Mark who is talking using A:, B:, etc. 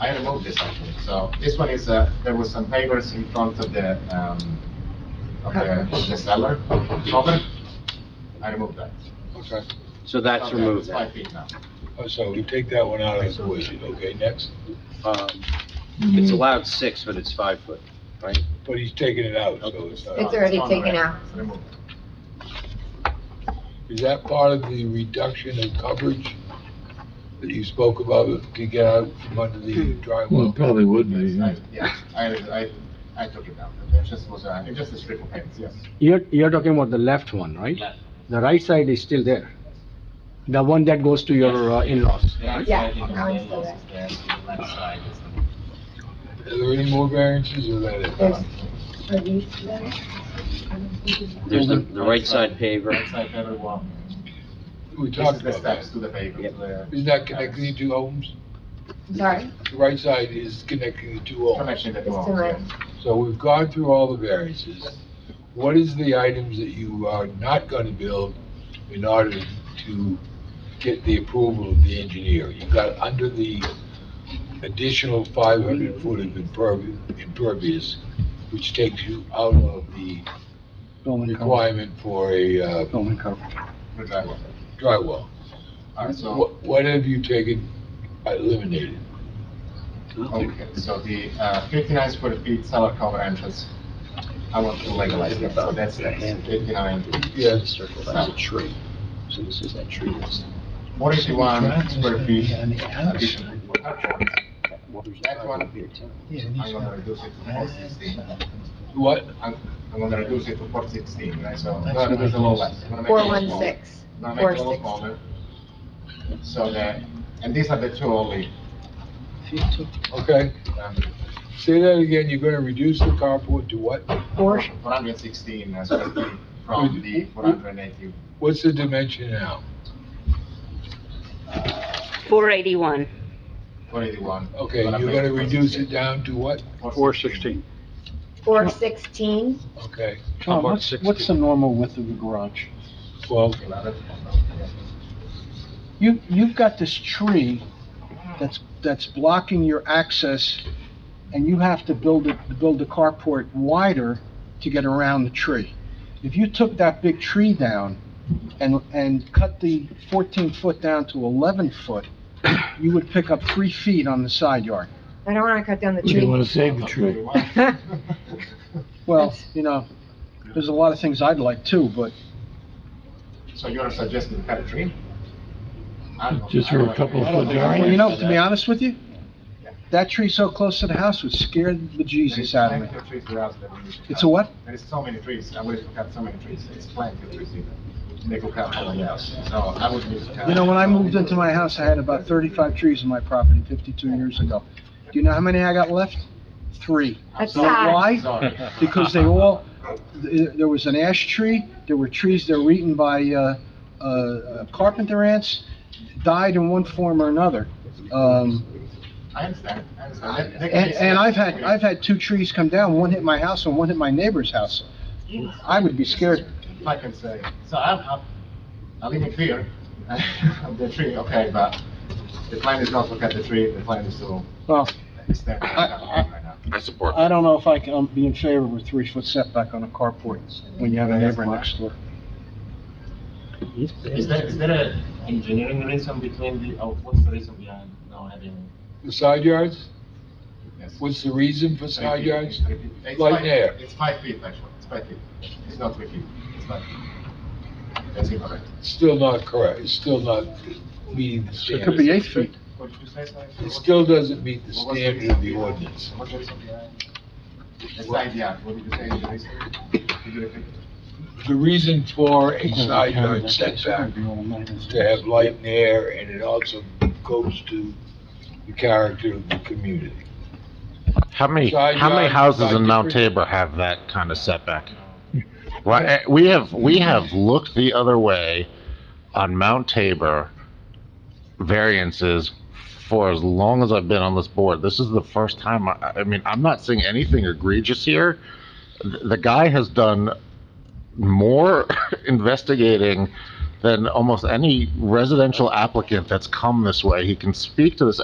A: I removed this actually, so this one is, uh, there was some pavers in front of the, um, of the, of the cellar cover. I removed that.
B: Okay,
C: So that's
A: Okay,
C: removed
A: It's
C: now.
A: five feet now.
B: Oh, so you take that one out of the equation, okay, next.
C: Um, It's allowed six, but it's five foot, right?
B: But he's taking it out, so it's uh,
D: It's
B: not.
D: already
A: on
D: taken
A: already.
D: out.
A: It's removed.
B: Is that part of the reduction of coverage that you spoke about to get out from under the
E: Well, it
B: drywall?
E: probably would be, yeah.
A: Yes, I- Yeah, I, I, I took it down. It just was, uh, it just a strip of paint, yes.
F: You're, you're talking about the left one, right?
A: Left.
F: The right side is still there. The one that goes to your uh, in-laws.
D: Yeah, no, it's still there.
B: Are there any more variances or that it?
D: There's, are these there? I don't think it's-
C: There's the, the right side paver,
A: Right side paver wall.
B: We
A: This
B: talked
A: is the
B: about
A: steps
B: that.
A: to the paver, to the
B: Is that connecting the two homes?
D: I'm Sorry,
B: The right side is connecting the two homes.
A: connection that
D: it's
A: wall,
D: too much.
A: yes.
B: So we've gone through all the variances. What is the items that you are not gonna build in order to get the approval of the engineer? You got under the additional five hundred foot of impervi- impervious, which takes you out of the requirement for a uh,
A: The drywall.
B: drywall.
A: All right, so.
B: What, what have you taken, uh, eliminated?
A: Okay, so the uh, 59 square feet cellar cover entrance, I want to legalize that, so that's that's 59.
B: Yeah,
C: circle, that's a tree. So this is that tree that's.
A: 41 square feet additional for carports. That one, I'm gonna reduce it to 416.
B: what,
A: I'm I'm gonna reduce it to 416, right, so, no, it was a little less. I'm gonna make it a
D: Four
A: little
D: one
A: smaller.
D: six,
A: I'm gonna make
D: four
A: it a little
D: six.
A: smaller. So that, and these are the two only,
B: okay,
A: um,
B: say that again, you're gonna reduce the carport to what?
D: Four,
A: 416 square feet from the 480.
B: What's the dimension now?
G: 481.
A: 481.
B: Okay,
A: But I'm
B: you're gonna
A: making
B: reduce it
A: 416.
B: down to what?
C: Four sixteen.
D: four sixteen,
B: Okay,
C: Tom, what's- what's the
F: normal width of the garage?
B: twelve,
F: You, you've got this tree that's, that's blocking your access, and you have to build it, build the carport wider to get around the tree. If you took that big tree down and, and cut the 14-foot down to 11-foot, you would pick up three feet on the side yard.
D: I don't wanna cut down the
E: You
D: tree.
E: want to save the tree.
F: Well, you know, there's a lot of things I'd like too, but
A: So you're suggesting cut a tree? I don't-
E: Just
A: I don't
E: for a couple
A: agree.
E: of foot
F: Well,
E: variance.
F: you know, to be honest with you, that tree so close to the house would scare the bejesus out of
A: There is plenty
F: me.
A: of trees around that we need to
F: It's
A: cut.
F: a what?
A: There is so many trees, I wish to cut so many trees, it's plenty of trees here. They could cut all the house, so I would need to cut.
F: You know, when I moved into my house, I had about thirty-five trees in my property fifty-two years ago. Do you know how many I got left? Three.
D: That's
F: You know
D: sad.
F: why?
A: Sorry.
F: Because they all, th- there was an ash tree, there were trees that were eaten by, uh, uh, carpenter ants, died in one form or another. Um,
A: I understand, I understand. They- they can
F: And,
A: be
F: and I've had,
A: selective.
F: I've had two trees come down, one hit my house and one hit my neighbor's house. I would be scared.
A: If I can say, so I'm, I'm, I live in fear of the tree, okay, but the plan is not to cut the tree, the plan is to
F: Well,
A: extend. it right now.
H: I support
F: I don't know if I can, I'm being favored with three-foot setback on a carport when you have a neighbor next door.
A: Is there, is there a engineering reason between the, oh, what's the reason behind now having?
B: the side yards?
A: Yes.
B: What's the reason for
A: Three
B: side
A: feet,
B: yards?
A: three feet. It's
B: Like
A: five-
B: there.
A: It's five feet, actually, it's five feet, it's not three feet, it's five feet. That's incorrect.
B: Still not correct, it's still not meeting the
F: It could be
B: standard.
F: eight feet.
A: What did you say, sorry?
B: It still doesn't meet the
A: What was
B: standard
A: reason
B: of the
A: behind-
B: ordinance.
A: What's the reason behind? The side yard, what did you say, is the reason? Could you repeat?
B: The reason for a side yard setback is to have light and air, and it also goes to the character of the community.
H: How many,
B: Side
H: how many
B: yard,
H: houses
B: side
H: in Mount
B: difference.
H: Tabor have that kind of setback? Well, eh, we have, we have looked the other way on Mount Tabor variances for as long as I've been on this board. This is the first time, I, I mean, I'm not seeing anything egregious here. Th- The guy has done more investigating than almost any residential applicant that's come this way. He can speak to this